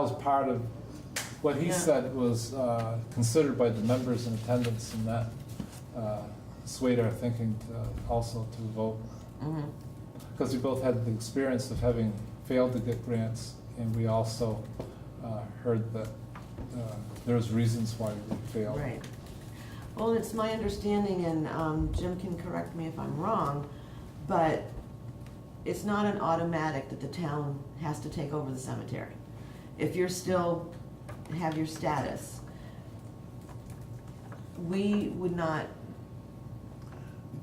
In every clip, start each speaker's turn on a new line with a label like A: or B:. A: was part of, what he
B: Yeah.
A: said was uh, considered by the members in attendance, and that uh, swayed our thinking to also to vote.
B: Mhm.
A: Because we both had the experience of having failed to get grants, and we also uh, heard that uh, there was reasons why we failed.
B: Right. Well, it's my understanding, and um, Jim can correct me if I'm wrong, but it's not an automatic that the town has to take over the cemetery. If you're still, have your status, we would not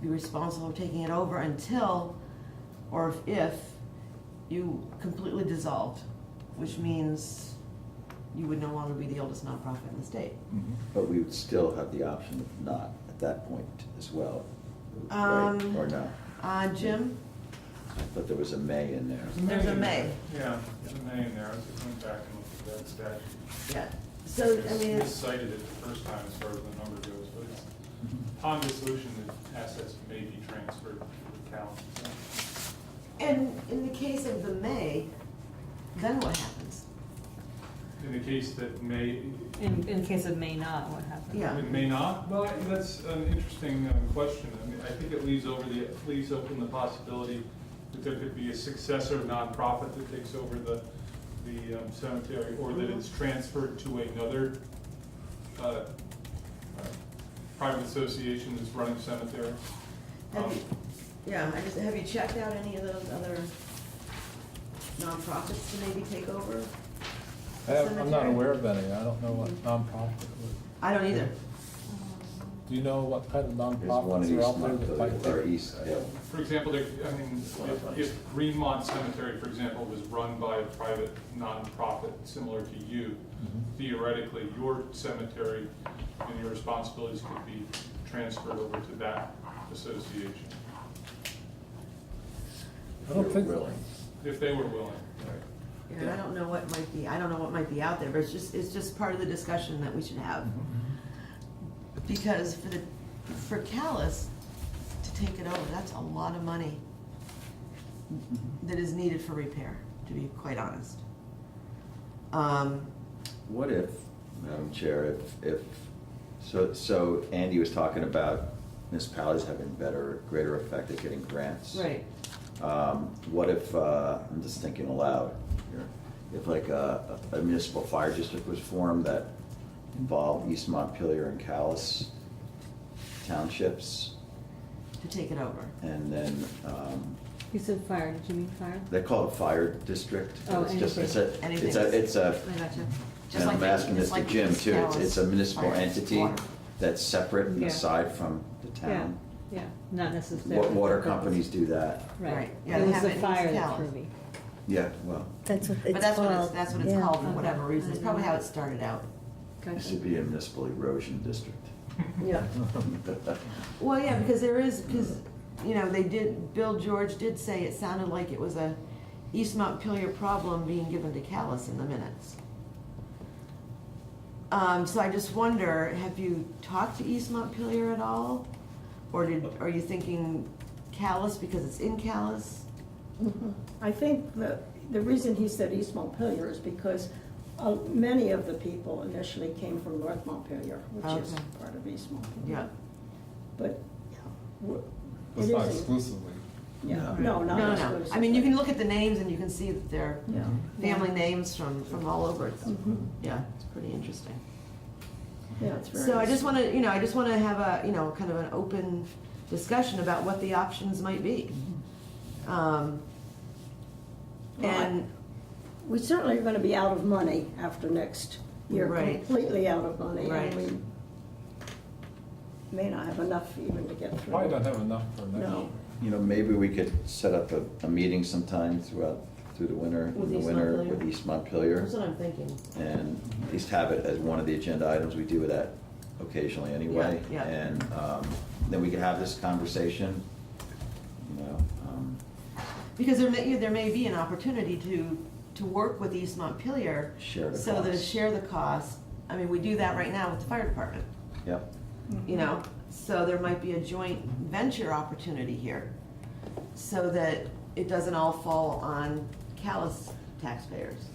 B: be responsible for taking it over until, or if, you completely dissolved, which means you would no longer be the oldest nonprofit in the state.
A: Mhm.
C: But we would still have the option of not at that point as well, right?
B: Um,
C: Or no?
B: Uh, Jim,
C: But there was a may in there.
B: there's a may,
D: Yeah, there's a May in there, I just went back and looked at that statute.
B: yeah. So, I
D: It's
B: mean, it's,
D: Miscited it the first time as far as the number goes, but it's, upon dissolution, the assets may be transferred to the town.
B: and in the case of the may, then what happens?
D: In the case that may,
E: In, in case of may not, what happened?
B: Yeah.
D: it may not, well, that's an interesting um, question. I mean, I think it leaves over the, leaves open the possibility that there could be a successor nonprofit that takes over the, the um, cemetery, or that it's transferred to another uh, uh, private association that's running cemetery. Um,
B: Have you, yeah, I just, have you checked out any of those other nonprofits to maybe take over?
A: I have- I'm not
B: Cemetery.
A: aware of any, I don't know what nonprofit would,
B: I don't either.
A: do you know what kind of
C: There's one in
A: nonprofits are
C: East
A: out there that
C: Montpelier,
A: might
C: or
A: take?
C: East Hill.
D: For example, there, I mean, if, if Greenmont Cemetery, for example, was run by a private nonprofit similar to you,
A: Mm-hmm.
D: theoretically, your cemetery and your responsibilities could be transferred over to that association,
A: I don't
C: You're
A: think-
C: willing.
D: if they were willing.
B: And I don't know what might be, I don't know what might be out there, but it's just, it's just part of the discussion that we should have.
C: Mm-hmm.
B: Because for the, for Callis to take it over, that's a lot of money
A: Mm-hmm.
B: that is needed for repair, to be quite honest. Um,
C: What if, Madam Chair, if, if, so, so Andy was talking about municipalities having better, greater effect at getting grants.
B: right,
C: Um, What if, uh, I'm just thinking aloud here, if like a a municipal fire district was formed that involved East Montpelier and Callis townships,
B: to take it over.
C: and then, um,
E: You said fire, did you mean fire?
C: they call it fire district.
E: Oh,
C: It's just- it's a-
B: anything.
C: It's a, it's a,
E: I gotcha.
B: Just
C: and
B: like
C: I'm
B: the-
C: asking this
B: just
C: to
B: like
C: Jim
B: East
C: too, it's, it's a
B: Dallas
C: municipal
B: Fire
C: entity
B: Water.
C: that's separate and
E: Yeah.
C: aside from the
E: Yeah,
C: town.
E: yeah, not necessarily.
C: Wa- Water companies do that,
E: Right.
B: Right, yeah,
E: It
B: they
E: was
B: have
E: the
B: it in
E: fire that
B: Dallas.
E: threw me.
C: yeah, well,
F: That's what it's called.
B: But that's what it's, that's what it's
F: yeah.
B: called for whatever
E: Okay.
B: reason, it's probably how it started out.
C: it
E: Gotcha.
C: should be a municipal erosion district.
B: Yeah. Well, yeah, because there is, because, you know, they did, Bill George did say it sounded like it was a East Montpelier problem being given to Callis in the minutes. Um, so I just wonder, have you talked to East Montpelier at all? Or did, are you thinking Callis because it's in Callis?
G: Mhm. I think the, the reason he said East Montpelier is because uh, many of the people initially came from North Montpelier, which is
B: Okay.
G: part of East
B: Yeah.
G: Montpelier. But, yeah, we're-
A: It's
G: it
A: not
G: isn't-
A: exclusively.
G: Yeah,
C: No.
G: no,
B: No, no,
G: not
B: no.
G: exclusively.
B: I mean, you can look at the names and you can see that they're
G: Yeah.
B: family names from, from all over. It's-
G: Mhm.
B: Yeah, it's pretty interesting.
G: Yeah, it's very.
B: So I just want to, you know, I just want to have a, you know, kind of an open discussion about what the options might be. Um,
G: Well, I-
B: And,
G: We certainly are gonna be out of money after next year,
B: Right.
G: completely out of money. and
B: Right.
G: we May not have enough even to get through.
A: Probably don't have enough for next year.
G: No.
C: You know, maybe we could set up a, a meeting sometime throughout, through the winter,
B: With
C: in the
B: East
C: winter
B: Montpelier?
C: with East Montpelier.
B: that's what I'm thinking.
C: And at least have it as one of the agenda items, we do that occasionally anyway.
B: Yeah, yeah.
C: And, um, then we could have this conversation, you know, um,
B: Because there may, there may be an opportunity to, to work with East Montpelier.
C: Share the
B: So to
C: cost.
B: share the cost. I mean, we do that right now with the fire department,
C: yep.
B: you know? So there might be a joint venture opportunity here. So that it doesn't all fall on callous taxpayers.